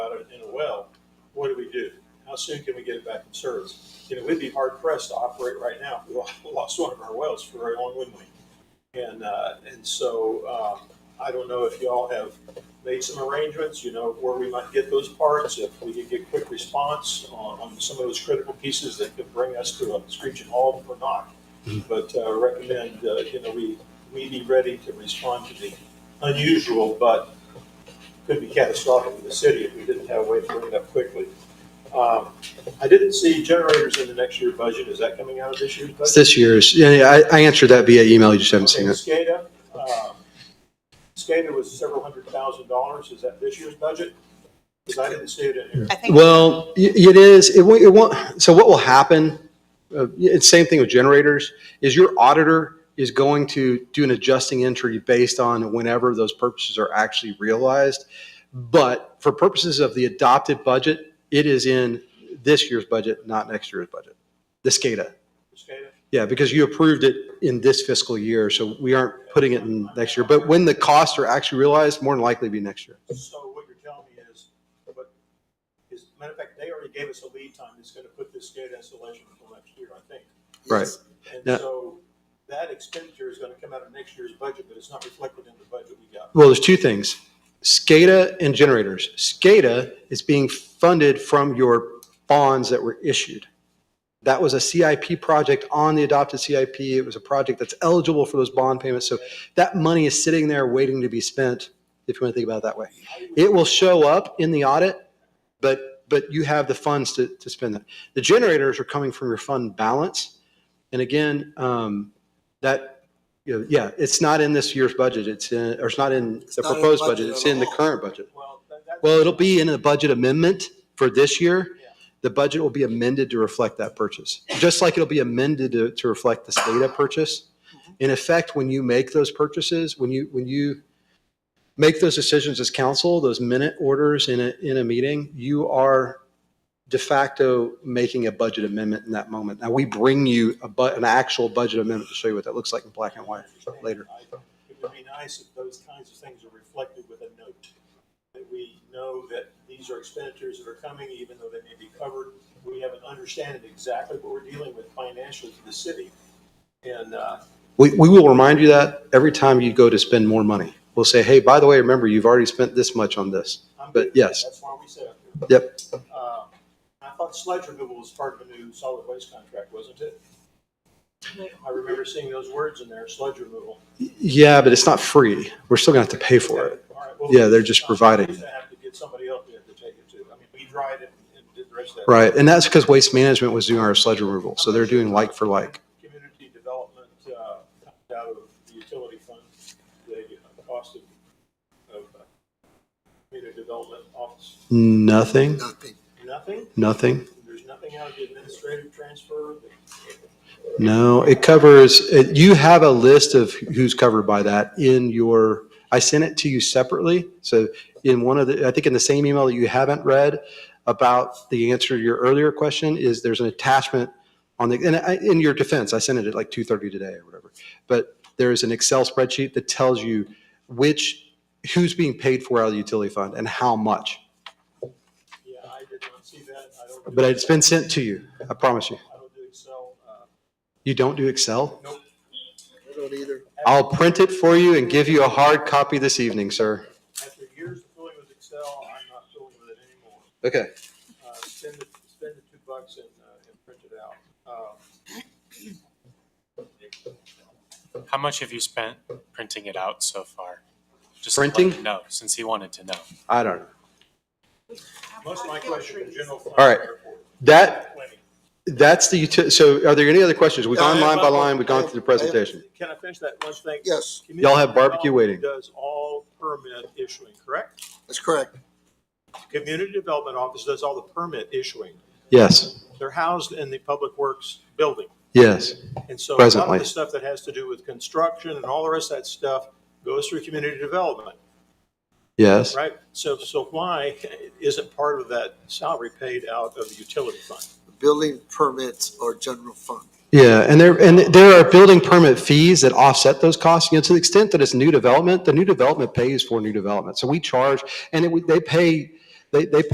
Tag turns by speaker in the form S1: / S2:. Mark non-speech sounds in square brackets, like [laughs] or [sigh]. S1: how soon can we get it back in service? You know, we'd be hard pressed to operate right now if we [laughs] lost- lost one of our wells for very long, wouldn't we? And, uh, and so, um, I don't know if y'all have made some arrangements, you know, where we might get those parts, if we could get quick response on, on some of those critical pieces that could bring us to a screeching halt or not. But, uh, recommend, uh, you know, we, we be ready to respond to the unusual, but could be catastrophic for the city if we didn't have a way to bring it up quickly. Um, I didn't see generators in the next year budget. Is that coming out of this year's
S2: It's
S1: budget?
S2: this year's, yeah, yeah, I, I answered that via email, you just haven't seen
S1: Okay,
S2: it.
S1: SCADA, um, SCADA was several hundred thousand dollars. Is that this year's budget? Because I didn't see it in here.
S3: I think
S2: Well, y- it is, it won't, it won't, so what will happen, uh, it's same thing with generators, is your auditor is going to do an adjusting entry based on whenever those purchases are actually realized. But for purposes of the adopted budget, it is in this year's budget, not next year's budget, the SCADA.
S1: SCADA?
S2: Yeah, because you approved it in this fiscal year, so we aren't putting it in next year. But when the costs are actually realized, more than likely be next year.
S1: So what you're telling me is, but, is, matter of fact, they already gave us a lead time that's gonna put this SCADA installation until next year, I think.
S2: Right. Yeah.
S1: And so that expenditure is gonna come out of next year's budget, but it's not reflected in the budget we got.
S2: Well, there's two things, SCADA and generators. SCADA is being funded from your bonds that were issued. That was a CIP project on the adopted CIP. It was a project that's eligible for those bond payments. So that money is sitting there waiting to be spent, if you want to think about it that way. It will show up in the audit, but, but you have the funds to, to spend that. The generators are coming from your fund balance. And again, um, that, you know, yeah, it's not in this year's budget. It's in, or it's not in the
S4: not in the
S2: proposed
S4: budget
S2: budget. It's
S4: at
S2: in the
S4: all.
S2: current budget.
S1: Well, that, that.
S2: Well, it'll be in a budget amendment for this year.
S1: Yeah.
S2: The budget will be amended to reflect that purchase, just like it'll be amended to, to reflect the SCADA purchase. In effect, when you make those purchases, when you, when you make those decisions as council, those minute orders in a, in a meeting, you are de facto making a budget amendment in that moment. Now, we bring you a bu, an actual budget amendment to show you what that looks like in black and white later.
S1: I- It would be nice if those kinds of things are reflected with a note, that we know that these are expenditures that are coming, even though they may be covered. We have an understanding exactly what we're dealing with financially to the city. And, uh,
S2: We, we will remind you that every time you go to spend more money. We'll say, hey, by the way, remember, you've already spent this much on this.
S1: I'm.
S2: But yes.
S1: That's why we said up here.
S2: Yep.
S1: Uh, I thought sludge removal was part of the new solid waste contract, wasn't it? I remember seeing those words in there, sludge removal.
S2: Yeah, but it's not free. We're still gonna have to pay for it.
S1: All right, well,
S2: Yeah, they're just
S1: uh,
S2: providing.
S1: we're gonna Have to get somebody else there to take it to. I mean, we dried it and did the rest of that.
S2: Right, and that's because Waste Management was doing our sludge removal, so they're doing like for like.
S1: Community development, uh, comes out of the utility fund, the uh, cost of, of, uh, community development office,
S2: Nothing,
S4: Nothing.
S1: nothing?
S2: nothing,
S1: There's nothing out of the administrative transfer?
S2: no, it covers, it- you have a list of who's covered by that in your, I sent it to you separately, so in one of the, I think in the same email that you haven't read about the answer to your earlier question is there's an attachment on the, and I, in your defense, I sent it at like two thirty today or whatever. But there is an Excel spreadsheet that tells you which, who's being paid for out of the utility fund and how much.
S1: Yeah, I did not see that. I don't. do
S2: But it's been sent to you, I promise you.
S1: I don't do Excel. uh,
S2: You don't do Excel?
S4: I don't either.
S2: I'll print it for you and give you a hard copy this evening, sir.
S1: After years of fooling with Excel, I'm not fooling with it anymore.
S2: Okay.
S1: Uh, Spend the, spend the two bucks and, uh, and print it out. Um,
S5: How much have you spent printing it out so far? Just
S2: Printing?
S5: No, since he wanted to know.
S2: I don't know.
S1: Most of my questions are general fund.
S2: All right.
S1: airport.
S2: That,
S1: Plenty.
S2: that's the, uti- so are there any other questions? We've gone line by line, we've gone through the presentation.
S1: Can I finish that one thing?
S4: Yes,
S2: Y'all have barbecue
S1: Community
S2: waiting.
S1: development Does all permit issuing, correct?
S4: that's correct.
S1: Community Development Office does all the permit issuing.
S2: Yes,
S1: They're housed in the Public Works building.
S2: yes.
S1: And so a lot of
S2: Presently.
S1: the stuff that has to do with construction and all the rest of that stuff goes through community development,
S2: Yes.
S1: right? So, so why isn't part of that salary paid out of the utility fund?
S4: Building permits are general fund.
S2: Yeah, and there, and there are building permit fees that offset those costs. You know, to the extent that it's new development, the new development pays for new development. So we charge, and it, would- they pay, they, they pay